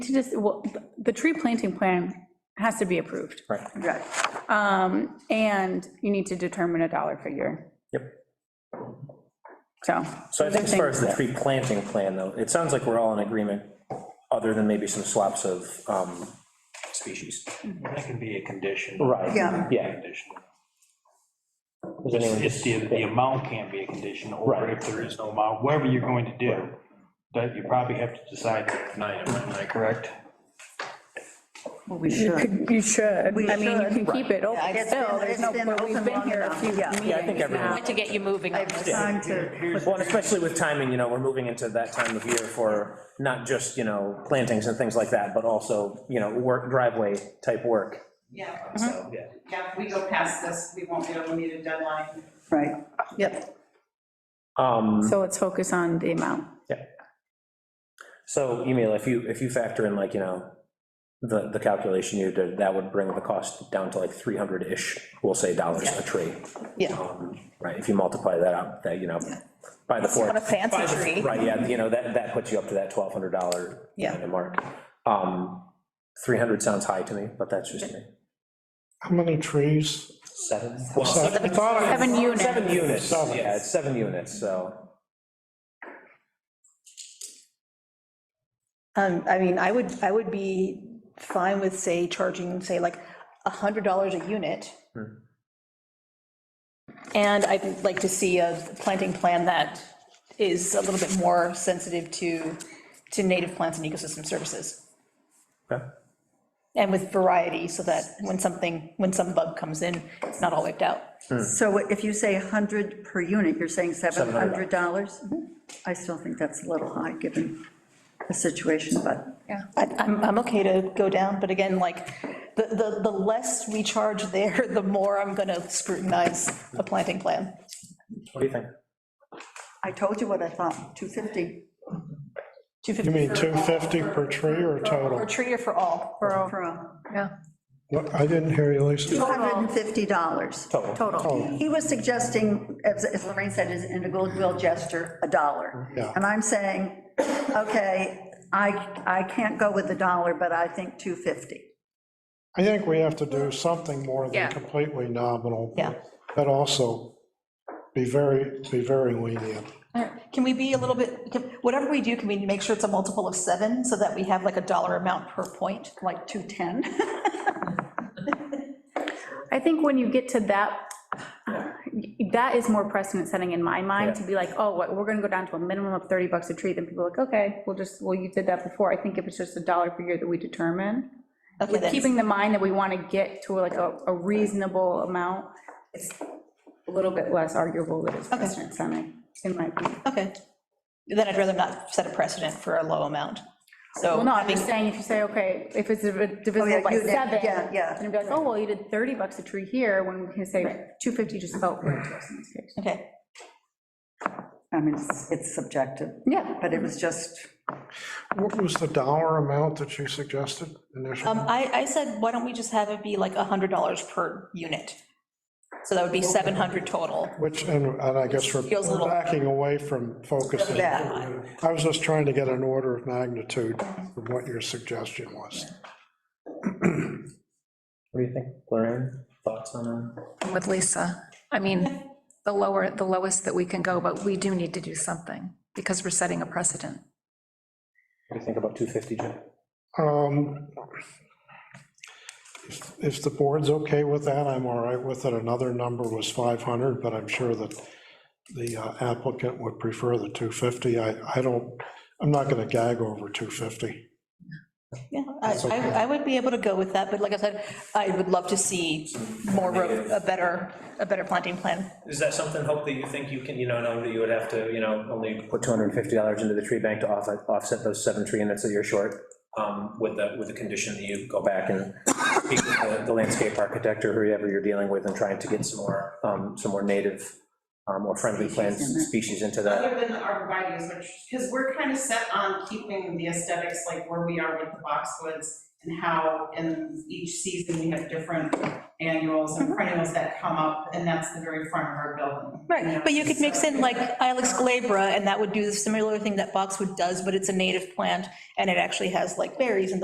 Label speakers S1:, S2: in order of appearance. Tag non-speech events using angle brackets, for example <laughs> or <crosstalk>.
S1: to just, well, th- the tree planting plan has to be approved,
S2: Right,
S3: Right.
S1: Um, and you need to determine a dollar figure,
S2: yep.
S1: so.
S2: So I think as far as the tree planting plan, though, it sounds like we're all in agreement, other than maybe some swaps of um, species.
S4: That can be a condition.
S2: Right.
S3: Yeah.
S2: Yeah.
S4: Condition.
S2: Does anyone-
S4: It's the, the amount can be a condition, or
S2: Right.
S4: if there is no amount, whatever you're going to do, that you probably have to decide tonight, am I correct?
S3: Well, we
S1: You
S3: should.
S1: could- you should,
S3: We
S1: I mean, you
S3: should.
S1: can keep it open
S3: It's
S1: still,
S3: been-
S1: there's
S3: it's
S1: no,
S3: been
S1: but we've
S3: open
S1: been
S3: long
S1: here a
S3: enough.
S1: few
S3: Yeah.
S1: meetings
S2: Yeah, I think
S1: now.
S2: everyone,
S5: to get you moving on
S3: I've
S5: this.
S3: signed to,
S2: well, and especially with timing, you know, we're moving into that time of year for not just, you know, plantings and things like that, but also, you know, work, driveway type work.
S5: Uh-huh.
S6: Yeah,
S2: So, yeah.
S6: yeah, if we go past this, we won't be able to meet a deadline.
S3: right, yep.
S2: Um,
S1: So let's focus on the amount.
S2: So, Emil, if you, if you factor in like, you know, the, the calculation you did, that would bring the cost down to like 300-ish, we'll say, dollars a tree.
S3: Yeah.
S2: Um, Right, if you multiply that out, that, you know, by the four.
S5: On a fancy tree.
S2: Right, yeah, you know, that, that puts you up to that $1,200.
S3: Yeah.
S2: kind of Mark. Um, 300 sounds high to me, but that's just me.
S7: How many trees?
S2: Seven?
S7: I thought I-
S1: Seven units.
S2: Seven units,
S7: Seven.
S2: yeah, it's seven units, so,
S5: Um, I mean, I would, I would be fine with, say, charging, say, like, $100 a unit. And I'd like to see a planting plan that is a little bit more sensitive to, to native plants and ecosystem services,
S2: okay.
S5: and with variety, so that when something, when some bug comes in, it's not all wiped out.
S3: So if you say 100 per unit, you're saying $700? Mm-hmm. I still think that's a little high, given the situation, but.
S5: Yeah, I- I'm, I'm okay to go down, but again, like, the, the, the less we charge there, <laughs> the more I'm gonna scrutinize the planting plan.
S2: What do you think?
S3: I told you what I thought, 250
S7: You
S5: 250
S7: mean 250 per tree or
S5: for
S7: total?
S5: a tree or for all?
S3: for a,
S7: What- I didn't hear you, Lisa.
S3: $250.
S2: Total.
S3: He was suggesting, as as Lorraine said, as in a goodwill gesture, a dollar.
S7: Yeah.
S3: And I'm saying, okay, I, I can't go with the dollar, but I think 250.
S7: I think we have to do something more
S5: Yeah.
S7: than completely nominal.
S5: Yeah.
S7: But also be very, be very lenient.
S5: All right, Can we be a little bit, can- whatever we do, can we make sure it's a multiple of seven, so that we have like a dollar amount per point, like 210?
S1: I think when you get to that, that is more precedent setting in my mind, to be like, oh, what, we're gonna go down to a minimum of 30 bucks a tree, then people are like, okay, we'll just, well, you did that before. I think if it's just a dollar figure that we determine,
S5: <laughs> Okay,
S1: with
S5: then.
S1: keeping the mind that we want to get to like a a reasonable amount, it's a little bit less arguable that it's precedent setting, in my opinion.
S5: Okay. Then I'd rather not set a precedent for a low amount, so.
S1: Well, no, I'm
S5: having-
S1: just saying, if you say, okay, if it's div-
S3: Oh,
S1: divisible
S3: yeah,
S1: by
S3: you did,
S1: seven,
S3: yeah, yeah.
S1: then it'd be like, oh, well, you did 30 bucks a tree here, when we can say 250 just felt right to us in this case.
S5: Okay,
S3: I mean, it's- it's subjective,
S1: Yeah.
S3: but it was just,
S7: What was the dollar amount that you suggested
S5: um,
S7: initially?
S5: I, I said, why don't we just have it be like $100 per unit? So that would be 700 total.
S7: Which, and and I guess we're
S5: Feels a little-
S7: backing away from focusing.
S3: Yeah.
S7: I was just trying to get an order of magnitude of what your suggestion was.
S2: What do you think, Lorraine? Thoughts on that?
S8: with Lisa. I mean, the lower, the lowest that we can go, but we do need to do something because we're setting a precedent.
S2: What do you think about 250, Jim?
S7: Um, If if the board's okay with that, I'm all right with it. Another number was 500, but I'm sure that the uh, applicant would prefer the 250. I, I don't, I'm not going to gag over 250.
S5: Yeah, I, I- I would be able to go with that, but like I said, I would love to see more, ro- a better, a better planting plan.
S2: Is that something, Hope, that you think you can, you know, know that you would have to, you know, only. Put $250 into the tree bank to offset, offset those seven tree units that you're short, um, with the, with the condition that you go back and speak with the- the landscape architect or whoever you're dealing with and trying to get some more, um, some more native, um, or friendly plants,
S3: Species in there.
S2: species into that.
S6: Other than the arborvitae's, which, because we're kind of set on keeping the aesthetics like where we are with the boxwoods and how in each season we have different annuals
S5: Uh-huh.
S6: and perennials that come up, and that's the very front of our building. know,
S5: Right, but you could mix
S6: so-
S5: in like Ilex glabra, and that would do the similar thing that boxwood does, but it's a native plant, and it actually has like berries and